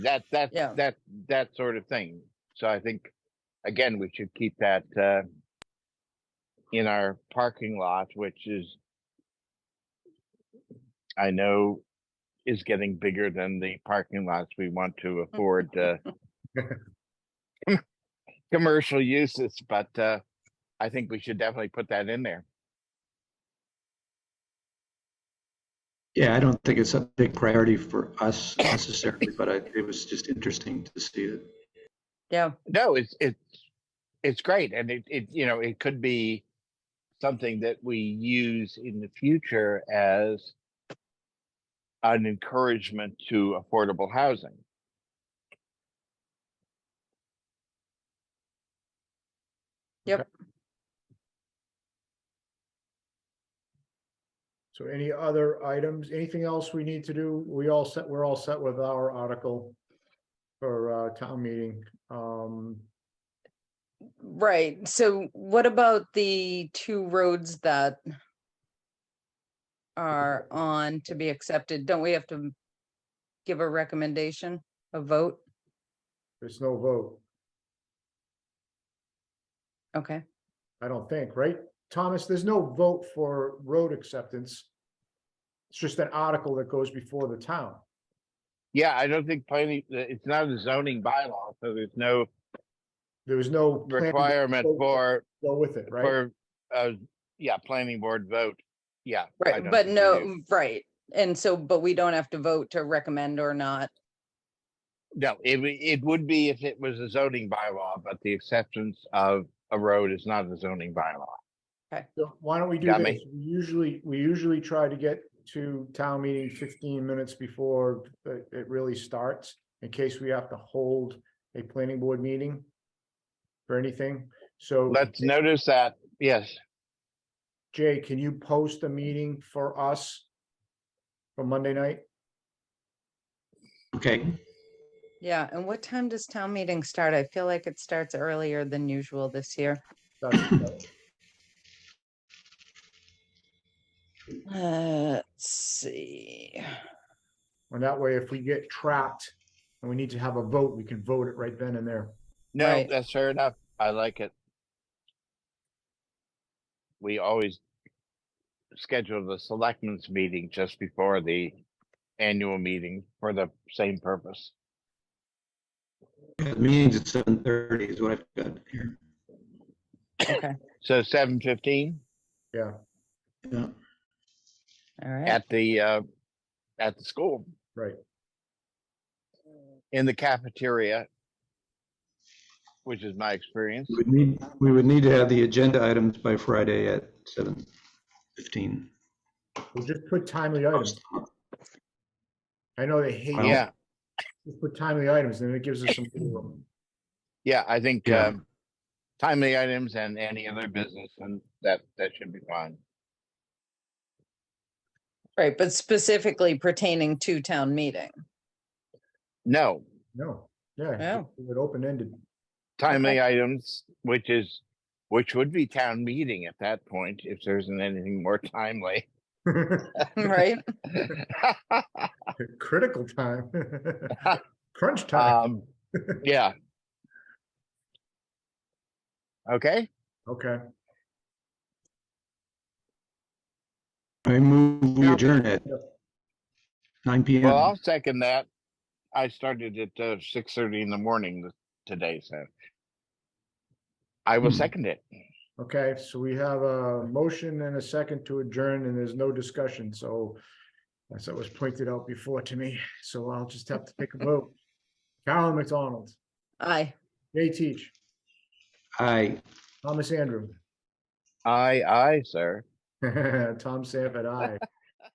that that Yeah. that that sort of thing. So I think again we should keep that uh, in our parking lot, which is I know is getting bigger than the parking lots we want to afford uh, commercial uses, but uh, I think we should definitely put that in there. Yeah, I don't think it's a big priority for us necessarily, but I, it was just interesting to see that. Yeah, No, it's it's it's great, and it it you know it could be something that we use in the future as an encouragement to affordable housing. So any other items, anything else we need to do? We all set, we're all set with our article for uh, town meeting. Um, right. So what about the two roads that are on to be accepted? Don't we have to give a recommendation, a vote? There's no vote, Okay, I don't think, right? Thomas, there's no vote for road acceptance. It's just an article that goes before the town. Yeah, I don't think planning. uh, It's not a zoning bylaw, so there's no There was no. plan to requirement vote- for Go with it, right? for uh, yeah, planning board vote. Yeah, I right, don't but think we do. no, right. And so, but we don't have to vote to recommend or not. no, it w- it would be if it was a zoning bylaw, but the acceptance of a road is not a zoning bylaw. So Why don't we do Got this? me. We Usually, we usually try to get to town meeting fifteen minutes before it it really starts, in case we have to hold a planning board meeting. For anything, so Let's notice that, yes, Jay, can you post a meeting for us? For Monday night? Okay, Yeah, and what time does town meeting start? I feel like it starts earlier than usual this year. That's- Let's see. And that way, if we get trapped and we need to have a vote, we can vote it right then and there. no, Right. that's fair enough. I like it. We always schedule the selectmen's meeting just before the annual meeting for the same purpose. yeah, the meeting's at seven thirty is what I've got here. Okay, So seven fifteen Yeah, Yeah. all right. at the, uh, at the school, right. in the cafeteria, which is my experience. We would need, we would need to have the agenda items by Friday at seven fifteen. We'll just put timely items. I know they hate. Well- Yeah, Just Put timely items, and it gives us some. room. yeah, I think, Yeah. um, timely items and any other business and that, that should be fine. Right, but specifically pertaining to town meeting. No, No, yeah, Yeah. just leave it open ended. timely items, which is, which would be town meeting at that point, if there isn't anything more timely. Right? Critical time. Crunch time. Um, yeah. Okay, Okay, I move we Yeah. adjourn at nine P well, M. I'll second that. I started at, uh, six thirty in the morning th- today, so. I will Hmm. second it. okay. So we have a motion and a second to adjourn and there's no discussion. So as that was pointed out before to me, so I'll just have to take a vote. Carolyn McDonald, Aye. Jay Teach, Aye. Thomas Andrew, Aye, aye, sir. Tom Sanford, I.